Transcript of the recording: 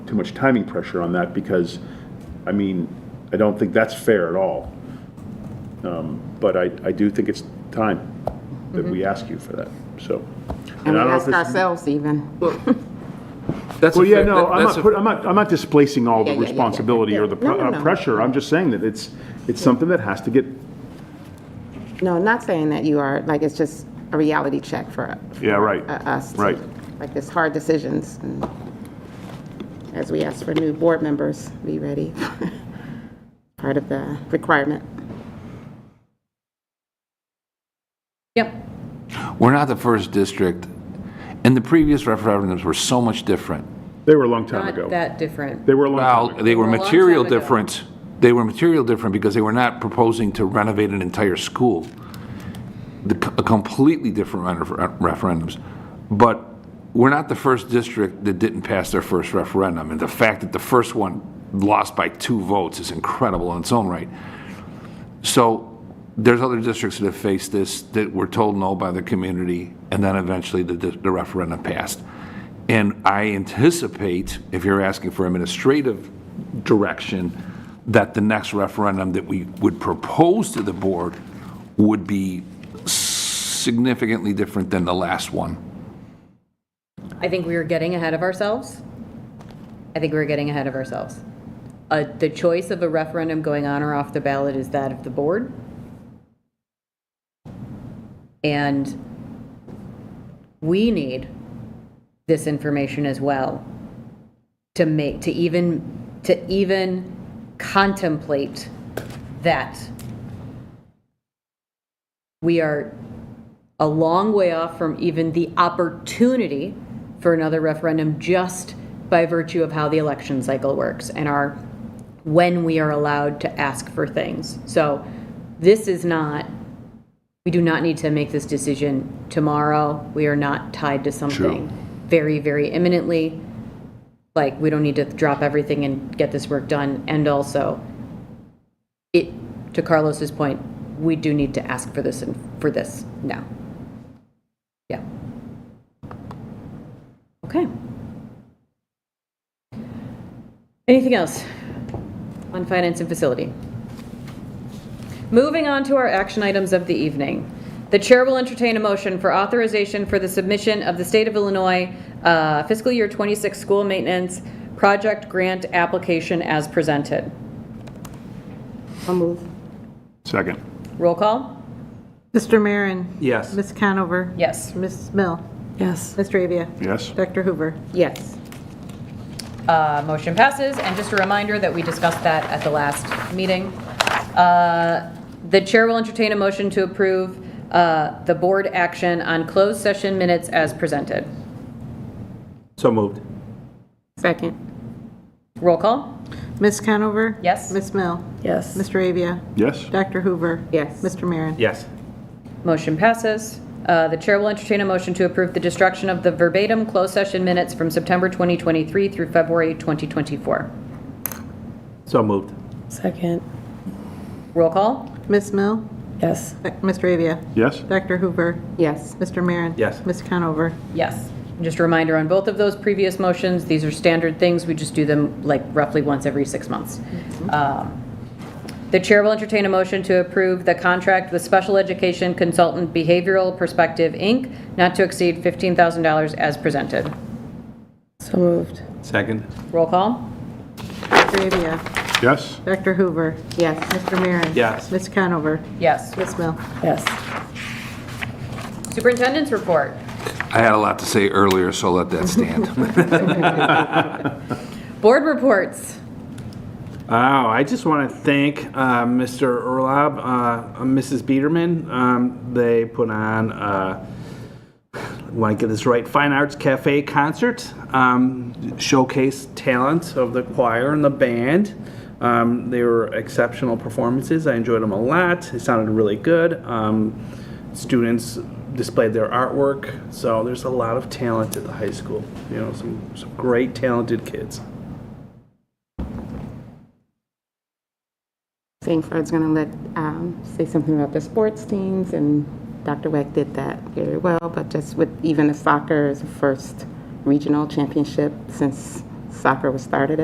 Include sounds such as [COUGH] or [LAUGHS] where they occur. too much timing pressure on that because, I mean, I don't think that's fair at all. Um, But I, I do think it's time that we ask you for that, so. Mm-hmm. I don't And we know if ask it's- ourselves even. That's a Well, yeah, fair- no, that- I'm not, that's a- put- I'm not, I'm not displacing all Yeah, the yeah, yeah, yeah. responsibility or the No, pr- no, uh, no. pressure. I'm just saying that it's, it's something that has to get, No, not saying that you are, like, it's just a reality check for yeah, right. uh, us. to- Right. Like, it's hard decisions. and As we ask for new board members, be ready. [LAUGHS] Part of the requirement. Yep. We're not the first district, and the previous referendums were so much different. They were a long time Not ago. that different. They were a long time Well, ago. they were They were a long material time ago. different, they were material different because they were not proposing to renovate an entire school. The c- a completely different ren- referendums. But we're not the first district that didn't pass their first referendum, and the fact that the first one lost by two votes is incredible in its own right. So there's other districts that have faced this, that were told no by the community, and then eventually the, the referendum passed. And I anticipate, if you're asking for administrative direction, that the next referendum that we would propose to the board would be significantly different than the last one. I think we were getting ahead of ourselves. I think we were getting ahead of ourselves. Uh, The choice of a referendum going on or off the ballot is that of the board. And we need this information as well to make, to even, to even contemplate that we are a long way off from even the opportunity for another referendum just by virtue of how the election cycle works and our when we are allowed to ask for things. So this is not we do not need to make this decision tomorrow. We are not tied to something very very imminently. Like we don't need to drop everything and get this work done and also it to Carlos's point, we do need to ask for this and for this now. Yeah. Okay. Anything else on finance and facility? Moving on to our action items of the evening. The chair will entertain a motion for authorization for the submission of the State of Illinois uh, fiscal year 26 school maintenance project grant application as presented. I'll move. Second. Roll call? Mr. Marin. Yes. Ms. Conover. Yes. Ms. Mill. Yes. Mr. Avia. Yes. Dr. Hoover. Yes. Uh, Motion passes, and just a reminder that we discussed that at the last meeting. Uh, The chair will entertain a motion to approve uh, the board action on closed session minutes as presented. So moved. Second. Roll call? Ms. Conover. Yes. Ms. Mill. Yes. Mr. Avia. Yes. Dr. Hoover. Yes. Mr. Marin. Yes. Motion passes. Uh, The chair will entertain a motion to approve the destruction of the verbatim closed session minutes from September 2023 through February 2024. So moved. Second, Roll call? Ms. Mill. yes. Doc- Mr. Avia. Yes. Dr. Hoover. Yes. Mr. Marin. Yes. Ms. Conover. Yes. Just a reminder on both of those previous motions, these are standard things, we just do them like roughly once every six months. Um, The chair will entertain a motion to approve the contract with Special Education Consultant Behavioral Perspective, Inc., not to exceed $15,000 as presented. So moved. Second. Roll call? Mr. Avia. Yes. Dr. Hoover. Yes. Mr. Marin. Yes. Ms. Conover. Yes. Ms. Mill. Yes. Superintendent's report. I had a lot to say earlier, so let that stand. Board reports. Oh, I just want to thank uh, Mr. Urlaub, uh, and Mrs. Biederman. Um, They put on, uh, want to get this right, Fine Arts Cafe concert, um, showcase talent of the choir and the band. Um, They were exceptional performances. I enjoyed them a lot. It sounded really good. Um, Students displayed their artwork. So there's a lot of talent at the high school. You know, some, some great talented kids. Singford's going to let, um, say something about the sports teams, and Dr. Weck did that very well, but just with even the soccer is the first regional championship since soccer was started